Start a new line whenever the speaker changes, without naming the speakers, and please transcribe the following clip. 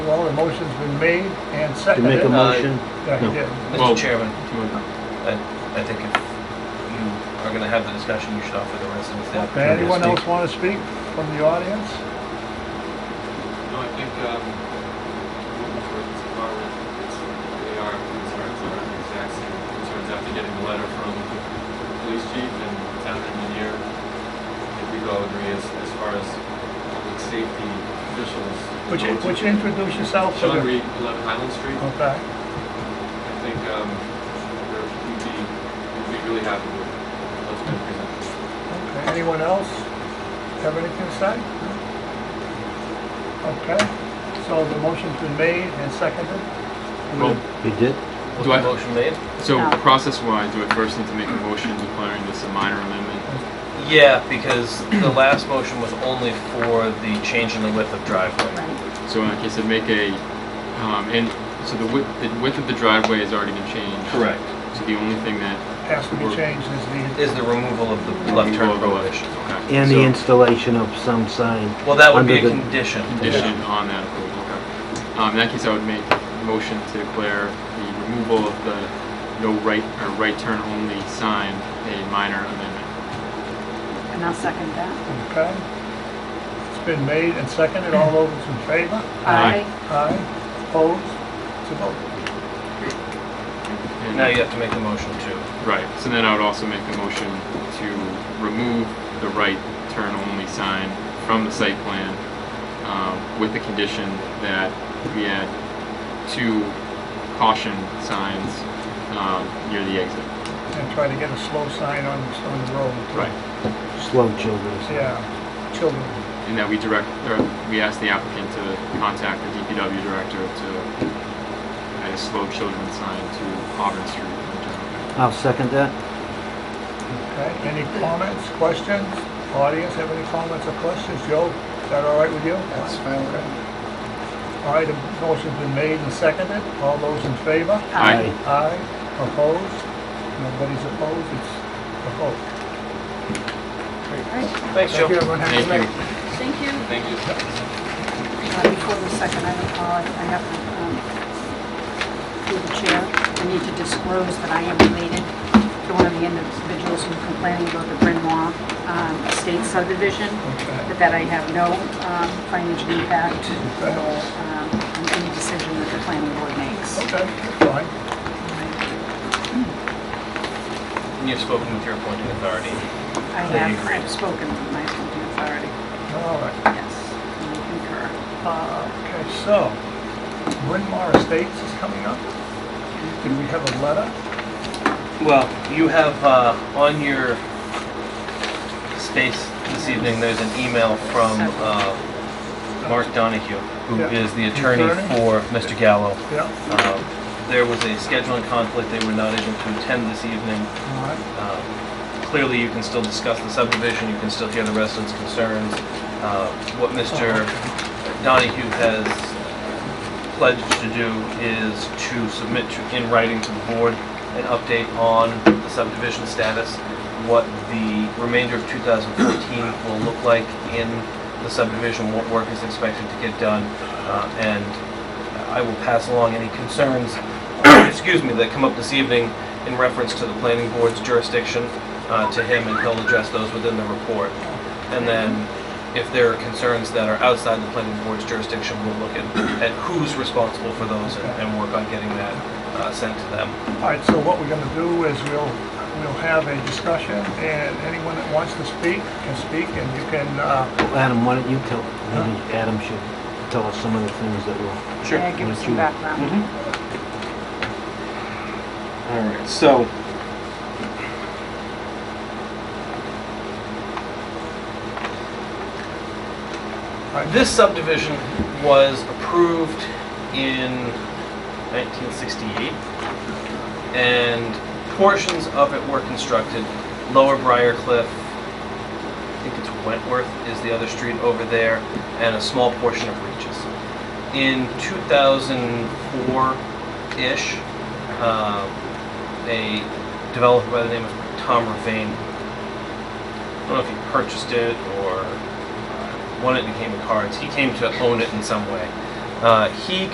Well, the motion's been made and
To make a
seconded.
motion?
Yeah, he
No.
did.
Mr.
Well-
Chairman, I, I think if you are gonna have the discussion, you should offer the residents the
Okay,
opportunity
anyone
to
else
speak.
want to speak from the audience?
No, I think, um, moving forward, so far, we're- it's, we are, concerns are the exact same concerns after getting the letter from the police chief and town engineer. I think we all agree as, as far as public safety officials.
Would you,
know,
would you introduce yourself? to the-
Sean Reed, eleven Highland Street.
Okay.
I think, um, we're, we'd be, we'd be really happy with what's been presented.
Okay, Anyone else have anything to say? Okay, so the motion's been made and seconded.
Well,
You did?
Was
Do I-
the motion made?
So
No.
process-wise, do I first need to make a motion declaring this a minor amendment?
Yeah, because the last motion was only for the change in the width of driveway.
Right.
So in that case, I'd make a, um, and, so the width, the width of the driveway has already been changed. So the only thing that.
Has to be changed is the,
Is the removal of the left turn prohibition.
Okay.
And the
So
installation of some sign.
Well, that would be a
Under the-
condition.
Condition on that approval, okay. Um, in that case, I would make a motion to declare the removal of the no right, or right turn only sign a minor amendment.
And I'll second that.
okay? It's been made and seconded, all those in favor?
Aye.
Aye, opposed, to vote.
And-
Now you have to make the motion too.
Right, so then I would also make a motion to remove the right turn only sign from the site plan um, with the condition that we add two caution signs um, near the exit.
And try to get a slow sign on, on the road. too.
Right.
Slow children.
Yeah, children.
And that we direct, or we ask the applicant to contact the DPW director to add a slow children sign to Auburn Street.
I'll second that.
Okay, any comments, questions? Audience, have any comments or questions? Joe, is that all right with you? That's fine. All right, the motion's been made and seconded. All those in favor?
Aye.
Aye. Opposed? Nobody's opposed, it's a vote.
Thanks, Joe.
Thank you, everyone. Have a good
Thank
night.
you.
Thank you.
Thank you.
Uh, Before the second, I apologize, I have to, um, through the chair, I need to disclose that I am related to one of the individuals who complaining about the Bryn Mawr um, Estate subdivision,
Okay.
but that I have no um, financial impact or um, on any decision that the planning board makes.
Okay, that's fine.
And you've spoken with your appointing authority.
I
Yeah, you
have
agree.
I've spoken with my appointing authority,
All right. Uh,
yes, and I concur.
Okay, so, Bryn Mawr Estates is coming up. Did we have a letter?
Well, you have uh, on your space this evening, there's an email from uh, Mark Donahue, who
Yeah.
is the attorney
Attorney?
for Mr. Gallo.
Yeah.
Um, There was a scheduling conflict, they were not able to attend this evening.
All right.
Um, Clearly, you can still discuss the subdivision, you can still hear the residents' concerns. Uh, What Mr. Donahue has pledged to do is to submit to- in writing to the board an update on the subdivision status, what the remainder of 2014 will look like in the subdivision, what work is expected to get done, uh, and I will pass along any concerns, uh, excuse me, that come up this evening in reference to the planning board's jurisdiction uh, to him, and he'll address those within the report. And then, if there are concerns that are outside the planning board's jurisdiction, we'll look at, at who's responsible for those and, and work on getting that uh, sent to them.
All right, so what we're gonna do is we'll, we'll have a discussion, and anyone that wants to speak can speak, and you can, uh,
Well, Adam, why don't you tell, maybe Adam should tell us some of the things that were,
Sure.
May I give
Would
some
you-
background?
All right, so. This subdivision was approved in 1968, and portions of it were constructed. Lower Briar Cliff, I think it's Wentworth is the other street over there, and a small portion of Regis. In 2004-ish, um, a developer by the name of Tom Ravine. I don't know if he purchased it or uh, won it and became a cards. He came to own it in some way. Uh, He